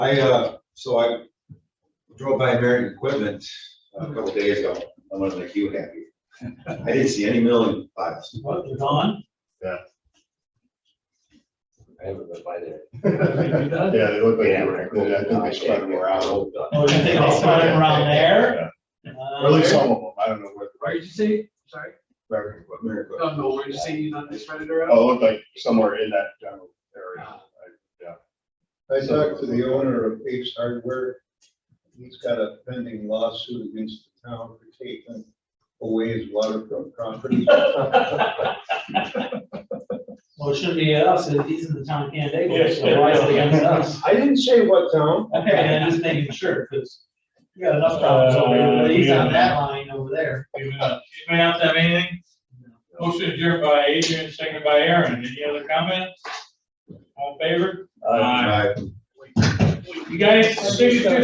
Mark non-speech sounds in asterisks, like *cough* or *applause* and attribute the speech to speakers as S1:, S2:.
S1: I, uh, so I drove by American Equipment uh, a couple days ago. I was like, you happy? *laughs* I didn't see any milling files.
S2: What, they're gone?
S3: I haven't been by there.
S2: They're done?
S4: Yeah, they look like
S3: Yeah,
S4: they were, included. I think they spread them around,
S2: Oh, you think they spread them around there? Uh,
S4: or at least some of them, I don't know what.
S5: Where did you see, sorry,
S4: American equipment.
S1: American
S5: I don't know, where did you see, you know, they spread it around?
S4: Oh, it looked like somewhere in that general area.
S3: Ah.
S4: I-
S6: I talked to the owner of Ace Hardware. He's got a pending lawsuit against the town for taking away his waterfront property.
S2: Well, it shouldn't be us, if these are the town candidates, so why is it against us?
S6: I didn't say what town.
S2: Okay, I'm just making sure, because you got enough problems over there, but he's on that line over there.
S7: Anybody else have anything? Motion adjourned by Adrian, seconded by Aaron. Any other comments? All in favor?
S1: I-
S7: You guys, signature